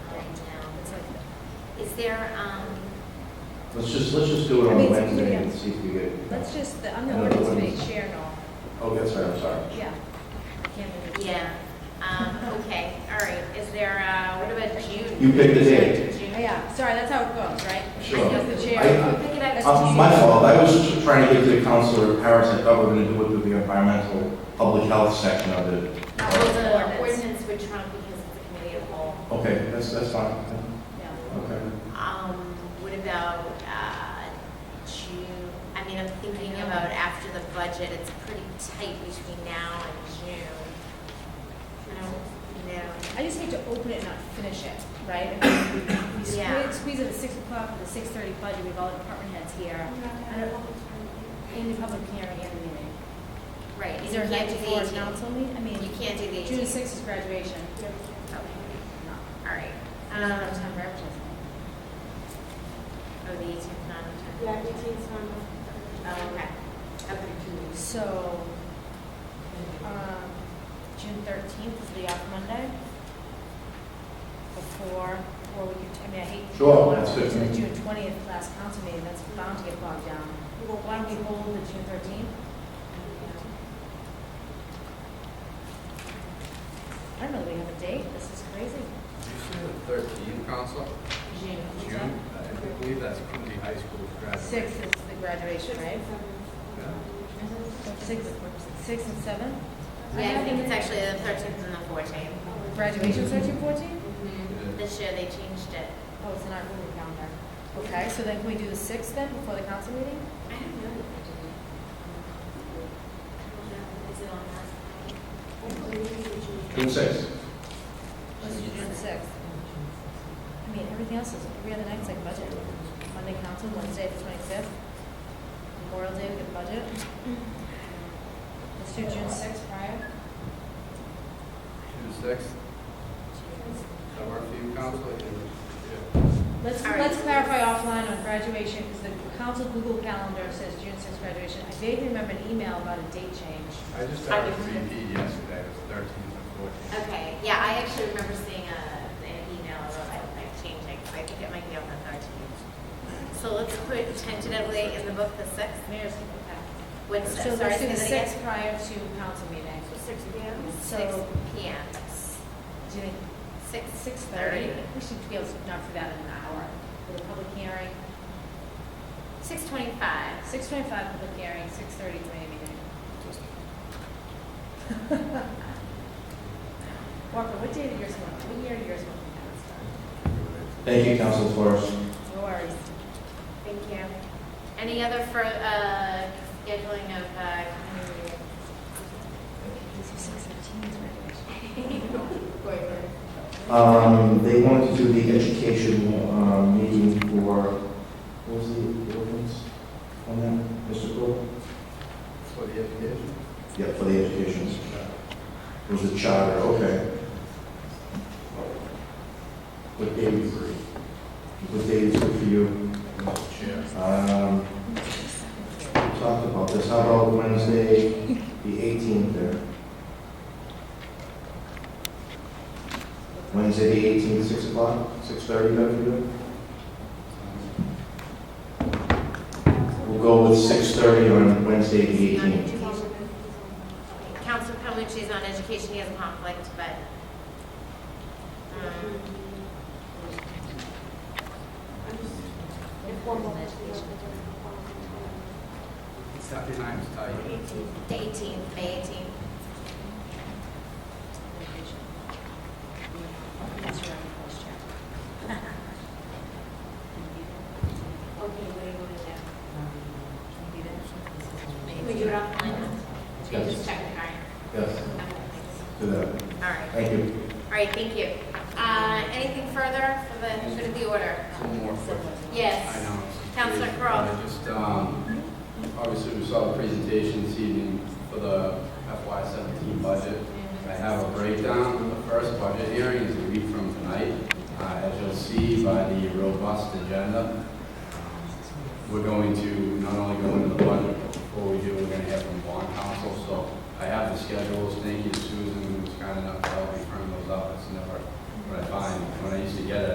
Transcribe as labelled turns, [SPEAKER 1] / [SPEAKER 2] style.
[SPEAKER 1] Is there, um,
[SPEAKER 2] Let's just, let's just do it
[SPEAKER 3] I
[SPEAKER 2] on
[SPEAKER 3] mean,
[SPEAKER 2] Wednesday
[SPEAKER 3] yeah.
[SPEAKER 2] and see if we get,
[SPEAKER 3] Let's just, the- I'm the
[SPEAKER 2] I don't
[SPEAKER 3] ordinance
[SPEAKER 2] know.
[SPEAKER 3] committee chair and all,
[SPEAKER 2] oh, that's right, I'm sorry.
[SPEAKER 3] yeah. I can't believe it.
[SPEAKER 1] yeah, um, okay, all right. Is there, uh, what about June?
[SPEAKER 2] You pick the date.
[SPEAKER 1] June.
[SPEAKER 3] Oh, Yeah, sorry, that's how it goes, right?
[SPEAKER 2] Sure.
[SPEAKER 3] As the
[SPEAKER 2] I-
[SPEAKER 3] chair.
[SPEAKER 1] Pick it up.
[SPEAKER 3] That's
[SPEAKER 2] Uh, My fault, I was just trying to get to Counselor Harris, I thought we were going to do it through the environmental, public health section of it.
[SPEAKER 1] Well, the ordinance would trump because it's a committee of whole.
[SPEAKER 2] Okay, that's, that's fine,
[SPEAKER 3] Yeah.
[SPEAKER 2] okay.
[SPEAKER 1] Um, what about, uh, June? I mean, I'm thinking about after the budget, it's pretty tight between now and June. I don't, you know,
[SPEAKER 3] I just hate to open it and not finish it, right? I mean, we- We
[SPEAKER 1] Yeah.
[SPEAKER 3] squeeze, squeeze it at six o'clock with the six thirty budget, we have all the department heads here. I don't- In the public hearing and the meeting.
[SPEAKER 1] right.
[SPEAKER 3] Is there a
[SPEAKER 1] you
[SPEAKER 3] night
[SPEAKER 1] can't do the
[SPEAKER 3] before
[SPEAKER 1] 18th.
[SPEAKER 3] council meeting? I mean,
[SPEAKER 1] You can't do the
[SPEAKER 3] June
[SPEAKER 1] 18th.
[SPEAKER 3] sixth is graduation.
[SPEAKER 1] Okay,
[SPEAKER 3] No.
[SPEAKER 1] all right.
[SPEAKER 3] I don't
[SPEAKER 1] Um,
[SPEAKER 3] have time for everything.
[SPEAKER 1] oh, the 18th, not the 10th.
[SPEAKER 4] Yeah, eighteen's
[SPEAKER 1] Oh,
[SPEAKER 4] on.
[SPEAKER 1] okay. Okay.
[SPEAKER 3] So, um, June thirteenth is the off Monday? Before, or we could, I mean, I hate.
[SPEAKER 2] Sure,
[SPEAKER 3] I don't wanna
[SPEAKER 2] that's
[SPEAKER 3] put it To
[SPEAKER 2] good.
[SPEAKER 3] the June twentieth last council meeting, that's bound to get bogged down. Well, why don't we hold the June thirteenth? I don't know, that we have a date, this is crazy.
[SPEAKER 5] You said the thirteenth, council?
[SPEAKER 1] June. what's
[SPEAKER 5] June?
[SPEAKER 1] that?
[SPEAKER 5] I believe that's Quincy High School graduation.
[SPEAKER 3] Sixth is the graduation, right? Six, six and seven?
[SPEAKER 1] Yeah, I think it's actually the 13th and the 14th.
[SPEAKER 3] Graduation's thirteen, fourteen? Mm-hmm.
[SPEAKER 1] Mhm. This year they changed it.
[SPEAKER 3] Oh, it's in our Google calendar. Okay, so then can we do the sixth then, before the council meeting?
[SPEAKER 1] I don't know. Is it on that?
[SPEAKER 2] June sixth.
[SPEAKER 3] Let's do the sixth. I mean, everything else is, every other night's like budget. Monday council, Wednesday the twenty-fifth, Memorial Day, we get budget. Let's do June sixth prior.
[SPEAKER 5] June sixth, that work for you, council? Yeah.
[SPEAKER 3] Let's,
[SPEAKER 1] All right.
[SPEAKER 3] let's clarify offline on graduation, because the council Google calendar says June sixth graduation. I vaguely remember an email about a date change.
[SPEAKER 5] I just got a repeat yesterday, it was thirteenth and fourteenth.
[SPEAKER 1] Okay, yeah, I actually remember seeing a, an email about that, like changing, so I think it might be on the thirteenth. So let's put tentatively in the book the sixth,
[SPEAKER 3] Mayor's,
[SPEAKER 1] what's,
[SPEAKER 3] so
[SPEAKER 1] sorry,
[SPEAKER 3] let's
[SPEAKER 1] say
[SPEAKER 3] do the
[SPEAKER 1] that again?
[SPEAKER 3] sixth prior to council meeting.
[SPEAKER 4] Six p.m.
[SPEAKER 1] Six
[SPEAKER 3] So,
[SPEAKER 1] P M,
[SPEAKER 3] do you think
[SPEAKER 1] six,
[SPEAKER 3] Six thirty, we should be able to knock through that in an hour for the public hearing.
[SPEAKER 1] six twenty-five.
[SPEAKER 3] Six twenty-five public hearing, six thirty committee meeting. Walker, what day did yours come out? What year did yours come out?
[SPEAKER 2] Thank you, Council Flores.
[SPEAKER 3] No worries.
[SPEAKER 1] Thank you. Any other for, uh, scheduling of, uh, community?
[SPEAKER 2] Um, they wanted to do the education, um, meeting for, what was the ordinance on that, Mr. Cole?
[SPEAKER 5] For the education?
[SPEAKER 2] Yeah, for the education, it was a charter, okay. What day is, what day is good for you?
[SPEAKER 5] Mr. Chair.
[SPEAKER 2] Um, we talked about this, how about Wednesday, the eighteenth there? Wednesday, the eighteenth, six o'clock, six thirty, that for you? We'll go with six thirty on Wednesday, the eighteenth.
[SPEAKER 1] Council Palucci's on education, he has a conflict, but, um,
[SPEAKER 4] Informal
[SPEAKER 5] That time's tight.
[SPEAKER 1] The 18th, May 18th.
[SPEAKER 3] That's your own voice, Jack.
[SPEAKER 1] Okay, what do you want to do? Can we
[SPEAKER 3] Maybe.
[SPEAKER 1] do it offline? Can you just check the card?
[SPEAKER 2] Yes, do that.
[SPEAKER 1] All right,
[SPEAKER 2] Thank you.
[SPEAKER 1] all right, thank you. Uh, Anything further for the, good of the order?
[SPEAKER 5] One more question. I
[SPEAKER 1] Yes.
[SPEAKER 5] know.
[SPEAKER 1] Counselor
[SPEAKER 5] It's-
[SPEAKER 1] Crowe.
[SPEAKER 5] I Just, um, obviously, we saw the presentation this evening for the FY seventeen budget. I have a breakdown. The first budget hearing is a week from tonight. Uh, As you'll see by the robust agenda, um, we're going to not only go into the budget, but before we do, we're going to have from bond council. So I have the schedules. Thank you to Susan, who was kind enough to help me print those up. It's never what I find. When I used to get it,